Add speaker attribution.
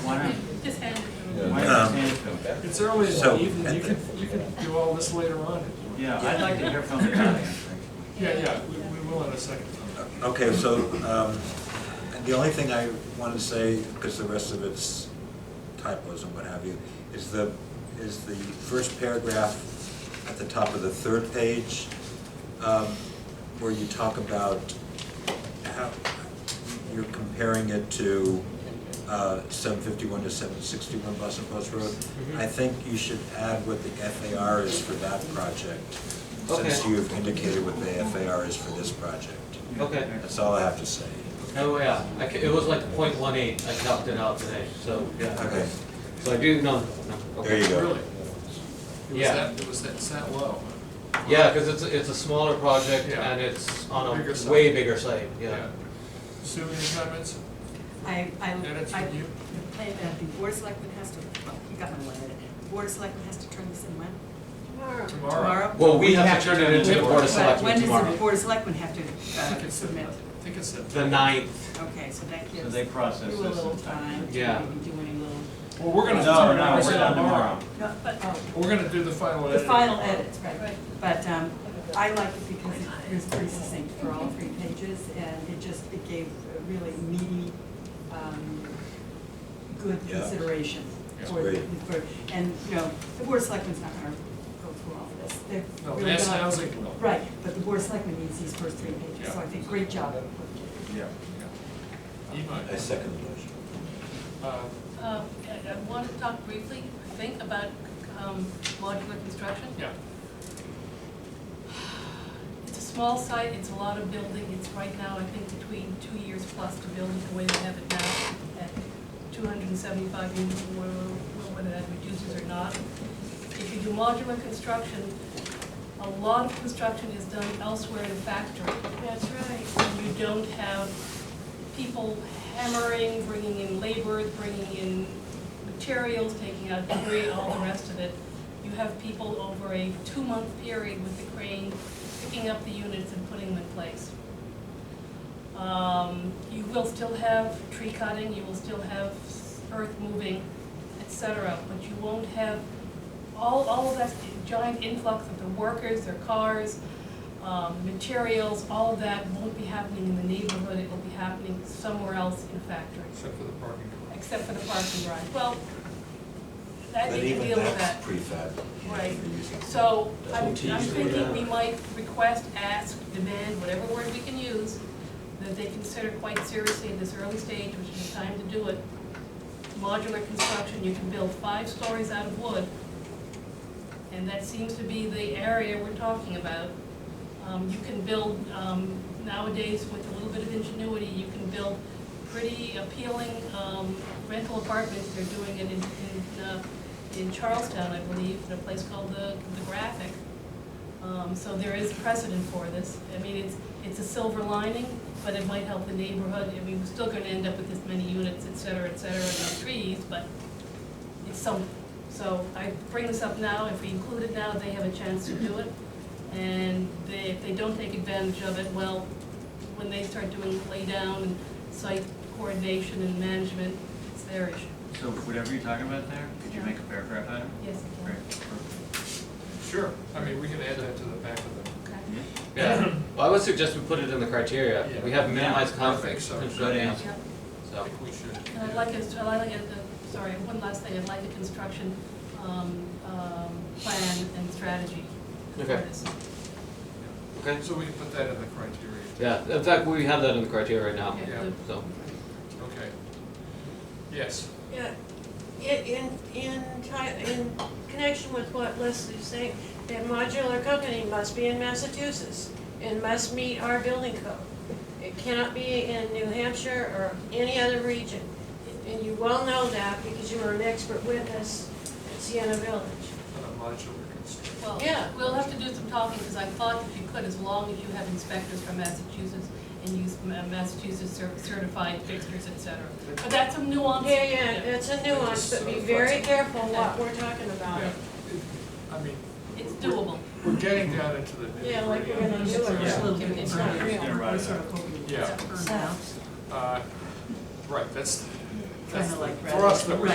Speaker 1: Why not?
Speaker 2: Just hand it to him.
Speaker 1: Why not hand it to them?
Speaker 3: It's early in
Speaker 4: So-
Speaker 3: the evening, you can, you can do all this later on.
Speaker 1: Yeah, I'd like to hear from the audience.
Speaker 3: Yeah, yeah, we, we will in a second.
Speaker 4: Okay, so, um, the only thing I want to say, because the rest of it's typos and what have you, is the, is the first paragraph at the top of the third page, um, where you talk about how, you're comparing it to, uh, seven fifty-one to seven sixty-one Boston Post Road. I think you should add what the FAR is for that project, since
Speaker 5: Okay.
Speaker 4: you've indicated what the FAR is for this project.
Speaker 5: Okay.
Speaker 4: That's all I have to say.
Speaker 5: Oh, yeah, I ca- it was like point one eight, I topped it out today, so, yeah.
Speaker 4: Okay,
Speaker 5: So I do, no, no, okay.
Speaker 4: there you go.
Speaker 3: Really? It was
Speaker 5: Yeah.
Speaker 3: that, it was that, it's that low.
Speaker 5: Yeah, because it's, it's a smaller project
Speaker 3: Yeah.
Speaker 5: and it's on
Speaker 3: Bigger
Speaker 5: a
Speaker 3: site.
Speaker 5: way bigger site, yeah.
Speaker 3: Sue, any comments?
Speaker 6: I, I,
Speaker 3: Edits
Speaker 6: I
Speaker 3: from you?
Speaker 6: complained that the board of selectmen has to, oh, you got my one edit. Board of selectmen has to turn this in when? Tomorrow?
Speaker 5: Well, we have to turn it into the
Speaker 3: in.
Speaker 5: Board of
Speaker 6: But
Speaker 5: Selectmen
Speaker 6: When does
Speaker 5: tomorrow.
Speaker 6: the board of selectmen have to
Speaker 3: I
Speaker 6: uh,
Speaker 3: think it's
Speaker 6: submit?
Speaker 3: September. I think it's September.
Speaker 5: The ninth,
Speaker 6: Okay, so that
Speaker 1: So
Speaker 6: gives
Speaker 1: they
Speaker 6: you
Speaker 1: process
Speaker 6: a
Speaker 1: this.
Speaker 6: little
Speaker 1: in
Speaker 6: time to
Speaker 5: Yeah.
Speaker 6: maybe do any little.
Speaker 3: Well, we're
Speaker 1: No,
Speaker 3: gonna.
Speaker 1: no,
Speaker 3: turn it
Speaker 1: no,
Speaker 3: over
Speaker 1: we're done tomorrow.
Speaker 6: No, but, oh,
Speaker 3: We're gonna do the final
Speaker 6: the
Speaker 3: edit.
Speaker 6: final edits, right.
Speaker 2: Right.
Speaker 6: But um, I liked it because it was pretty succinct for all three pages, and it just, it gave a really meaty, um, good
Speaker 4: Yeah.
Speaker 6: consideration.
Speaker 3: Yeah.
Speaker 6: for the-
Speaker 4: Great.
Speaker 6: for- And, you know, the board of selectmen's not gonna go through all of this. They're
Speaker 3: No,
Speaker 6: really
Speaker 3: mass
Speaker 6: gonna-
Speaker 3: housing will.
Speaker 6: Right, but the board of selectmen needs these first three pages, so I
Speaker 3: Yeah.
Speaker 6: think, great job.
Speaker 1: Yeah.
Speaker 4: I
Speaker 3: Emo,
Speaker 4: second the motion.
Speaker 3: uh,
Speaker 2: Um, I I want to talk briefly, I think, about um, modular construction.
Speaker 3: yeah,
Speaker 2: It's a small site, it's a lot of building, it's right now, I think, between two years plus to build it the way they have it now, at two hundred and seventy-five units, or whether that reduces or not. If you do modular construction, a lot of construction is done elsewhere in a factory.
Speaker 7: That's right.
Speaker 2: you don't have people hammering, bringing in laborers, bringing in materials, taking out debris, all the rest of it. You have people over a two-month period with the crane picking up the units and putting them in place. Um, You will still have tree cutting, you will still have earth moving, et cetera, but you won't have all, all of that giant influx of the workers, their cars, um, materials, all of that won't be happening in the neighborhood, it will be happening somewhere else in a factory,
Speaker 3: except for the parking.
Speaker 2: except for the parking lot. Well, I
Speaker 4: But
Speaker 2: think you
Speaker 4: even
Speaker 2: deal with
Speaker 4: that's
Speaker 2: that.
Speaker 4: prefab. you know,
Speaker 2: Right.
Speaker 4: you're using-
Speaker 2: So I'm, I'm
Speaker 4: Tease or
Speaker 2: thinking we
Speaker 4: whatever.
Speaker 2: might request, ask, demand, whatever word we can use, that they consider quite seriously at this early stage, which is the time to do it. Modular construction, you can build five stories out of wood. And that seems to be the area we're talking about. Um, you can build, um, nowadays with a little bit of ingenuity, you can build pretty appealing, um, rental apartments. They're doing it in, in, uh, in Charlestown, I believe, in a place called the, the Graphic. Um, so there is precedent for this. I mean, it's, it's a silver lining, but it might help the neighborhood. I mean, we're still gonna end up with this many units, et cetera, et cetera, and no trees, but it's something. So I bring this up now, if we include it now, they have a chance to do it. And they, if they don't take advantage of it, well, when they start doing laydown and site coordination and management, it's their issue.
Speaker 1: So whatever you're talking about there, could you make a paragraph out of it?
Speaker 2: Yes, it
Speaker 1: Great.
Speaker 2: can.
Speaker 3: Sure, I mean, we can add that to the back of the.
Speaker 2: okay.
Speaker 1: Yeah.
Speaker 5: yeah. Well, I would suggest we put it in the criteria,
Speaker 3: Yeah.
Speaker 5: we have minimized
Speaker 3: Yeah,
Speaker 5: conflicts,
Speaker 3: perfect.
Speaker 5: construction,
Speaker 3: So-
Speaker 1: Good answer.
Speaker 2: Yeah.
Speaker 3: I
Speaker 5: so,
Speaker 3: think we should.
Speaker 2: And I'd like it, I'd like it, uh, sorry, one last thing, I'd like a construction, um, um, plan and strategy for
Speaker 5: Okay.
Speaker 2: this.
Speaker 5: okay?
Speaker 3: So we can put that in the criteria.
Speaker 5: Yeah, in fact, we have that in the criteria right now,
Speaker 2: Yeah,
Speaker 3: Yeah.
Speaker 2: the-
Speaker 5: Oh, so.
Speaker 3: Okay. Yes.
Speaker 7: Yeah, in, in, in ti- in connection with what Leslie's saying, that modular company must be in Massachusetts and must meet our building code. It cannot be in New Hampshire or any other region. And you well know that because you were an expert witness at Sienna Village.
Speaker 3: On a modular construction.
Speaker 2: Well,
Speaker 7: Yeah.
Speaker 2: we'll have to do some talking, because I thought that you could, as long as you have inspectors from Massachusetts and use Ma- Massachusetts cer- certified fixtures, et cetera. But that's some nuance.
Speaker 7: Yeah, yeah, that's a nuance, but be very careful what we're talking about.
Speaker 3: Yeah. I mean.
Speaker 2: It's
Speaker 3: we're-
Speaker 2: doable.
Speaker 3: We're getting down into the.
Speaker 7: Yeah, like we're
Speaker 3: nitty-gritty.
Speaker 7: gonna do it.
Speaker 6: Just a little bit.
Speaker 7: It's not real.
Speaker 6: We're sort of hoping
Speaker 3: Yeah.
Speaker 6: it's up now.
Speaker 3: Uh, Right, that's,
Speaker 6: kind of like.
Speaker 3: For us, that
Speaker 6: rather-
Speaker 3: was